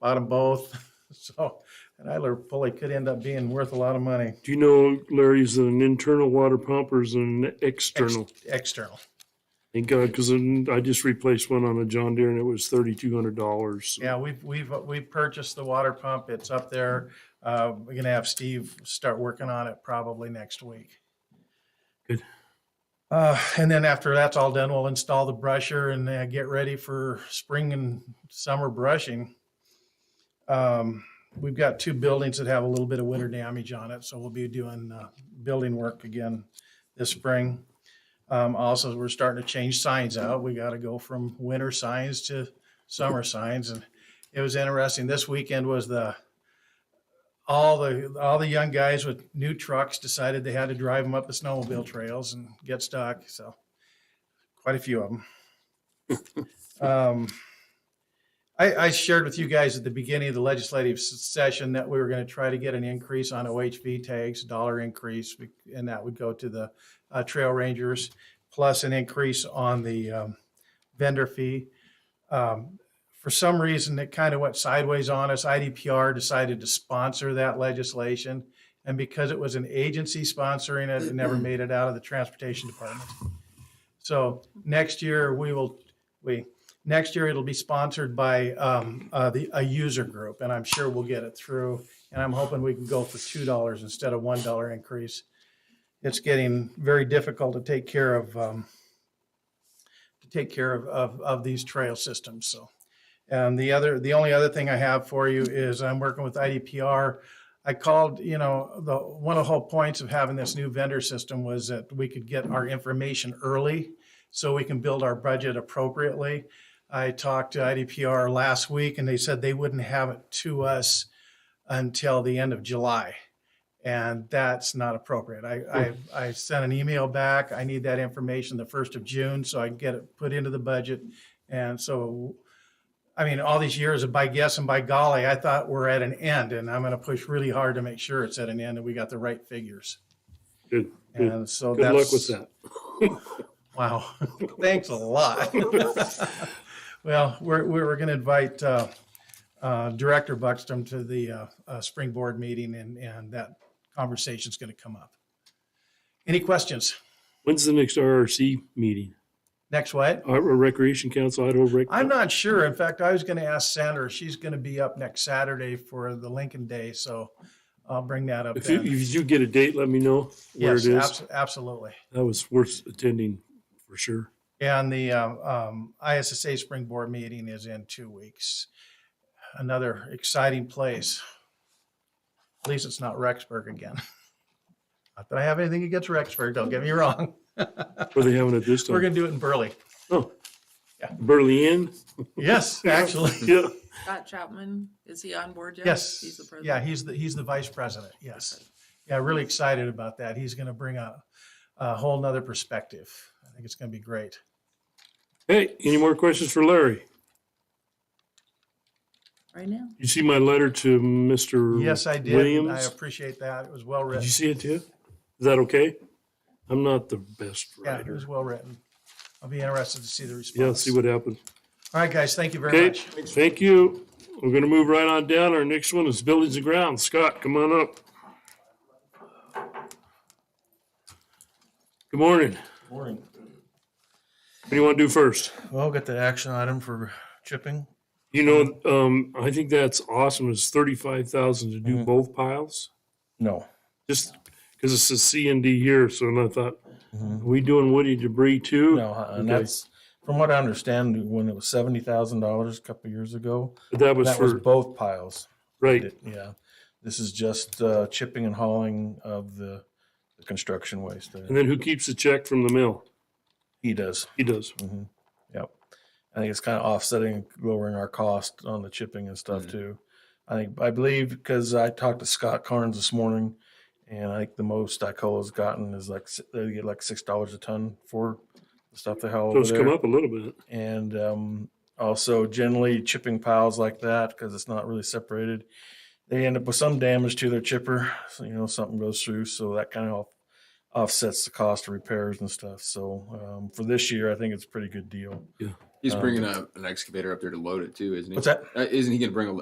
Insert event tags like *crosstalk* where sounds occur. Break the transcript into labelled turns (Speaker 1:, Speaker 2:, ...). Speaker 1: bought them both. *laughs* So, and Idler pulley could end up being worth a lot of money.
Speaker 2: Do you know, Larry, is it an internal water pump or is it an
Speaker 1: Ex-
Speaker 2: external?
Speaker 1: External.
Speaker 2: Thank God, because I just replaced one on a John Deere and it was thirty-two hundred dollars.
Speaker 1: Yeah, we've, we've, we purchased the water pump. It's up there. Uh, we're gonna have Steve start working on it probably next week.
Speaker 2: Good.
Speaker 1: Uh, and then after that's all done, we'll install the brusher and uh, get ready for spring and summer brushing. Um, we've got two buildings that have a little bit of winter damage on it, so we'll be doing, uh, building work again this spring. Um, also, we're starting to change signs out. We gotta go from winter signs to summer signs and it was interesting. This weekend was the, all the, all the young guys with new trucks decided they had to drive them up the snowmobile trails and get stuck. So quite a few of them. um, I, I shared with you guys at the beginning of the legislative s- session that we were going to try to get an increase on OHV tags, dollar increase, be- and that would go to the uh, trail rangers, plus an increase on the um, vendor fee. Um, for some reason, it kind of went sideways on us. IDPR decided to sponsor that legislation. And because it was an agency sponsoring it, it never made it out of the transportation department. So next year, we will, we, next year, it'll be sponsored by, um, uh, the, a user group, and I'm sure we'll get it through. And I'm hoping we can go for two dollars instead of one dollar increase. It's getting very difficult to take care of, um, to take care of, of, of these trail systems, so. And the other, the only other thing I have for you is I'm working with IDPR. I called, you know, the, one of the whole points of having this new vendor system was that we could get our information early so we can build our budget appropriately. I talked to IDPR last week and they said they wouldn't have it to us until the end of July. And that's not appropriate. I, I, I sent an email back. I need that information the first of June so I can get it put into the budget. And so, I mean, all these years of by guess and by golly, I thought we're at an end and I'm going to push really hard to make sure it's at an end and we got the right figures.
Speaker 2: Good, good.
Speaker 1: And so
Speaker 2: Good
Speaker 1: that's.
Speaker 2: luck with that.
Speaker 1: Wow, *laughs* thanks a lot. *laughs* Well, we're, we we're going to invite uh, uh, Director Buxton to the uh, uh, spring board meeting and, and that conversation's going to come up. Any questions?
Speaker 2: When's the next RRC meeting?
Speaker 1: Next what?
Speaker 2: Uh, Recreation Council, Idaho Rec.
Speaker 1: I'm not sure. In fact, I was going to ask Sandra, she's going to be up next Saturday for the Lincoln Day, so I'll bring that up
Speaker 2: If you,
Speaker 1: then.
Speaker 2: if you do get a date, let me know where
Speaker 1: Yes,
Speaker 2: it is.
Speaker 1: abs- absolutely.
Speaker 2: That was worth attending for sure.
Speaker 1: And the um, um, ISSA Spring Board meeting is in two weeks. Another exciting place. At least it's not Rexburg again. Not that I have anything against Rexburg, don't get me wrong.
Speaker 2: Were they having it
Speaker 1: *laughs*
Speaker 2: this
Speaker 1: We're
Speaker 2: time?
Speaker 1: gonna do it in Burley.
Speaker 2: Oh,
Speaker 1: Yeah.
Speaker 2: Berlin?
Speaker 1: Yes, actually,
Speaker 2: *laughs* Yeah.
Speaker 3: Scott Chapman, is he on board yet?
Speaker 1: yes.
Speaker 3: He's the president.
Speaker 1: Yeah, he's the, he's the vice president, yes. Yeah, really excited about that. He's gonna bring a, a whole nother perspective. I think it's gonna be great.
Speaker 2: Hey, any more questions for Larry?
Speaker 3: Right now.
Speaker 2: You see my letter to Mr.
Speaker 1: Yes, I did. and I
Speaker 2: Williams?
Speaker 1: appreciate that. It was well
Speaker 2: Did you
Speaker 1: written.
Speaker 2: see it too? Is that okay? I'm not the best
Speaker 1: Yeah, it
Speaker 2: writer.
Speaker 1: was well written. I'll be interested to see the response.
Speaker 2: Yeah, let's see what happens.
Speaker 1: All right, guys, thank you very
Speaker 2: Okay,
Speaker 1: much.
Speaker 2: thank you. We're gonna move right on down. Our next one is buildings and grounds. Scott, come on up. Good morning.
Speaker 4: Morning.
Speaker 2: What do you want to do first?
Speaker 4: Well, get the action item for chipping.
Speaker 2: You know, um, I think that's awesome. It's thirty-five thousand to do
Speaker 4: Mhm.
Speaker 2: both piles.
Speaker 4: No.
Speaker 2: Just because it's a C and D year, so and I thought,
Speaker 4: Mhm.
Speaker 2: are we doing woody debris too?
Speaker 4: No, uh, and
Speaker 2: Okay.
Speaker 4: that's, from what I understand, when it was seventy thousand dollars a couple years ago,
Speaker 2: But that was
Speaker 4: that was
Speaker 2: for,
Speaker 4: both piles.
Speaker 2: right,
Speaker 4: It- Yeah. This is just uh, chipping and hauling of the the construction waste.
Speaker 2: and
Speaker 4: that
Speaker 2: then who keeps the check from the mill?
Speaker 4: He does.
Speaker 2: He does.
Speaker 4: Mhm. Yep. I think it's kind of offsetting, lowering our cost on the chipping and stuff
Speaker 2: Mm.
Speaker 5: Mhm.
Speaker 4: too. I think, I believe, because I talked to Scott Carnes this morning, and I think the most ICOLA's gotten is like, si- they get like six dollars a ton for the stuff they haul
Speaker 2: So
Speaker 4: over
Speaker 2: it's come
Speaker 4: there.
Speaker 2: up a little bit.
Speaker 4: And um, also generally chipping piles like that, because it's not really separated, they end up with some damage to their chipper, so, you know, something goes through, so that kind of offsets the cost of repairs and stuff. So um, for this year, I think it's a pretty good deal.
Speaker 5: He's
Speaker 4: Um,
Speaker 5: bringing a, an excavator up there to load it too, isn't he?
Speaker 4: What's that?
Speaker 5: Uh, isn't he going to bring a